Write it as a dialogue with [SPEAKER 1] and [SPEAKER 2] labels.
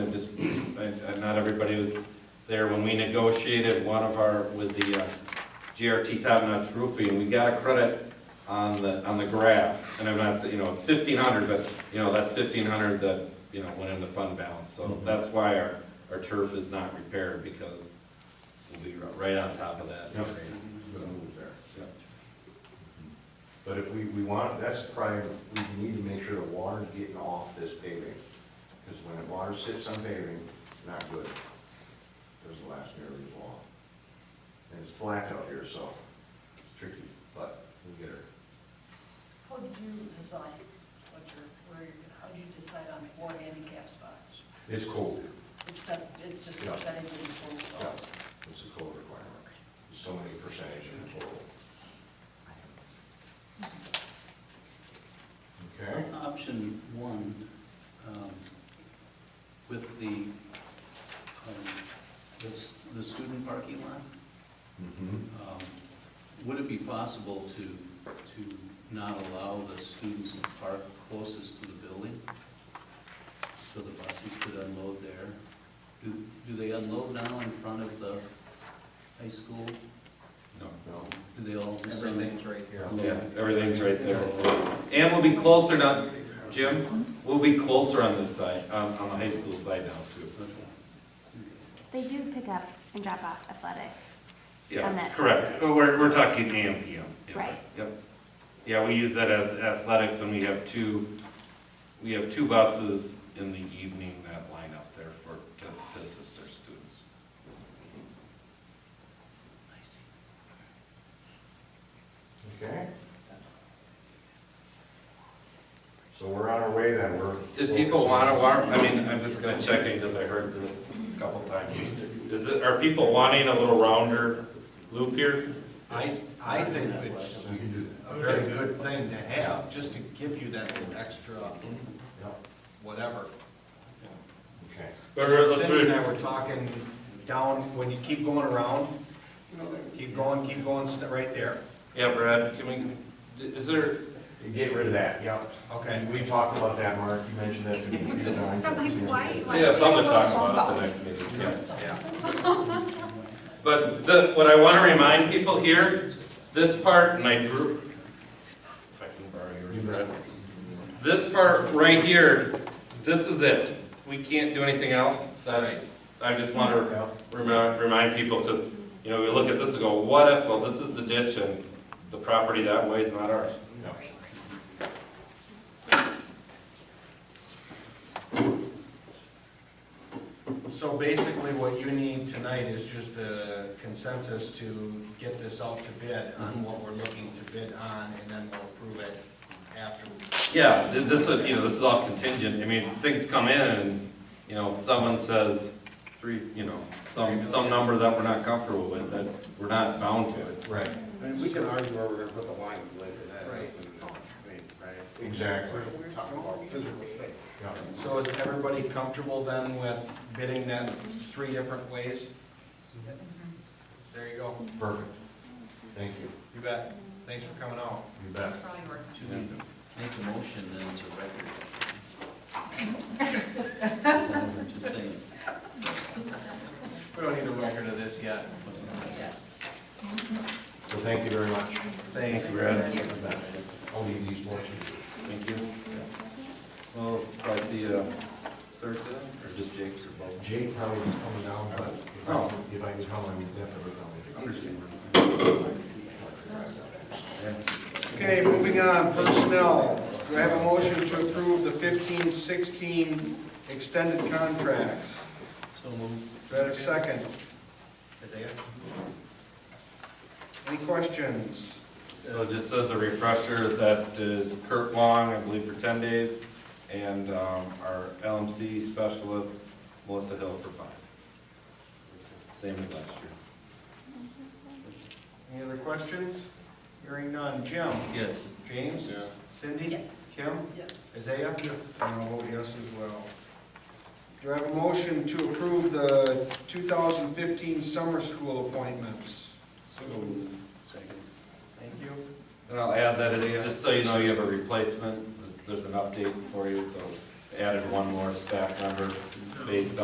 [SPEAKER 1] not everybody was there when we negotiated one of our, with the uh, GRT Top Notch Roofing, we got a credit on the, on the grass, and I'm not, saying you know, it's fifteen hundred, but, you know, that's fifteen hundred that, you know, went into fund balance, so that's why our, our turf is not repaired, because we'll be right on top of that.
[SPEAKER 2] Yep.
[SPEAKER 1] So, yeah.
[SPEAKER 2] But if we, we want, that's probably, we need to make sure the water's getting off this paving, because when the water sits on paving, it's not good. There's the last year we long. And it's flat out here, so it's tricky, but we'll get her.
[SPEAKER 3] How did you decide what your, where, you're how did you decide on four handicap spots?
[SPEAKER 2] It's cold,
[SPEAKER 3] It's, that's, it's just
[SPEAKER 2] Yeah.
[SPEAKER 3] percentage of the total
[SPEAKER 2] yeah,
[SPEAKER 3] spots.
[SPEAKER 2] it's a cold requirement, so many percentage in the total. Okay?
[SPEAKER 4] Option one, um, with the, um, the s- the student parking lot,
[SPEAKER 2] Mm-hmm.
[SPEAKER 4] um, would it be possible to, to not allow the students to park closest to the building? So the buses could unload there? Do, do they unload now in front of the high school?
[SPEAKER 1] No.
[SPEAKER 2] No,
[SPEAKER 4] Do they all? just un-
[SPEAKER 5] Everything's right here.
[SPEAKER 1] Yeah, everything's right there. And we'll be closer to, Jim, we'll be closer on this side, on, on the high school side now too.
[SPEAKER 4] Okay.
[SPEAKER 6] They do pick up and drop off athletics. On
[SPEAKER 1] Yeah,
[SPEAKER 6] that side.
[SPEAKER 1] correct. Uh, We're, we're talking AM, PM. Yeah,
[SPEAKER 6] Right.
[SPEAKER 1] Yep. Yeah, we use that as athletics and we have two, we have two buses in the evening that line up there for, to, to assist our students.
[SPEAKER 4] I see.
[SPEAKER 2] Okay? So we're on our way then, we're.
[SPEAKER 1] Did people wanna warm, I mean, I'm just gonna check it because I heard this a couple times. Is it, are people wanting a little rounder loop here?
[SPEAKER 5] I, I think it's a very good thing to have, just to give you that little extra
[SPEAKER 2] Yep,
[SPEAKER 5] whatever.
[SPEAKER 2] Okay.
[SPEAKER 1] But
[SPEAKER 5] Cindy and I were talking down, when you keep going around, keep going, keep going, st- right there.
[SPEAKER 1] Yeah, Brad, can we, is there,
[SPEAKER 2] You Get rid of that, yep.
[SPEAKER 5] Okay,
[SPEAKER 2] And we talked about that, Mark, you mentioned that to me. a few times.
[SPEAKER 1] we have something to talk about at the next meeting. yeah.
[SPEAKER 5] yeah.
[SPEAKER 1] But the, what I want to remind people here, this part, and I drew, if I can borrow yours, Brad. This part right here, this is it. We can't do anything else. That's, I just want to
[SPEAKER 2] Yeah.
[SPEAKER 1] remind, remind people, because, you know, we look at this and go, what if, well, this is the ditch and the property that way is not ours.
[SPEAKER 2] No.
[SPEAKER 5] So basically, what you need tonight is just a consensus to get this out to bid on what we're looking to bid on, and then we'll approve it after.
[SPEAKER 1] Yeah, th- this would, you know, this is all contingent, I mean, things come in and, you know, someone says three, you know, some, some number that we're not comfortable with, that we're not bound to it.
[SPEAKER 2] Right,
[SPEAKER 7] I mean, we can argue where we're gonna put the lines later, that,
[SPEAKER 5] Right.
[SPEAKER 7] I mean, right?
[SPEAKER 2] exactly.
[SPEAKER 7] We're talking about physical space.
[SPEAKER 2] Yep.
[SPEAKER 5] So is everybody comfortable then with bidding that three different ways? There you go.
[SPEAKER 2] Perfect. Thank you.
[SPEAKER 5] You bet. Thanks for coming out.
[SPEAKER 2] You bet.
[SPEAKER 3] probably worth
[SPEAKER 4] Should we make a motion then it's a record? Just saying.
[SPEAKER 5] We don't need a record of this yet.
[SPEAKER 2] So thank you very much.
[SPEAKER 5] Thanks.
[SPEAKER 1] Brad.
[SPEAKER 2] You bet. I'll leave these ones to you.
[SPEAKER 1] Thank you. Well, I see, uh, Sarah, or just Jake's or both.
[SPEAKER 2] Jake probably is coming down, but if I-
[SPEAKER 1] Oh.
[SPEAKER 2] if I can tell him, he's definitely coming.
[SPEAKER 1] Understand.
[SPEAKER 5] Okay, moving on, personnel. Do I have a motion to approve the fifteen sixteen extended contracts?
[SPEAKER 4] So moved.
[SPEAKER 5] Do I have a second? Any questions?
[SPEAKER 1] So just as a refresher, that is Kurt Long, I believe for ten days, and, um, our LMC specialist, Melissa Hill for five. Same as last year.
[SPEAKER 5] Any other questions? Hearing none. Jim?
[SPEAKER 4] Yes.
[SPEAKER 5] James? Cindy?
[SPEAKER 3] Yes.
[SPEAKER 5] Kim?
[SPEAKER 3] Yes.
[SPEAKER 5] Isaiah? Yes. And I'll vote yes as well. Do I have a motion to approve the 2015 summer school appointments?
[SPEAKER 4] So Second.
[SPEAKER 5] Thank you.
[SPEAKER 1] And I'll add that, it's just so you know, you have a replacement, There's- there's an update for you, so added one more staff member based on.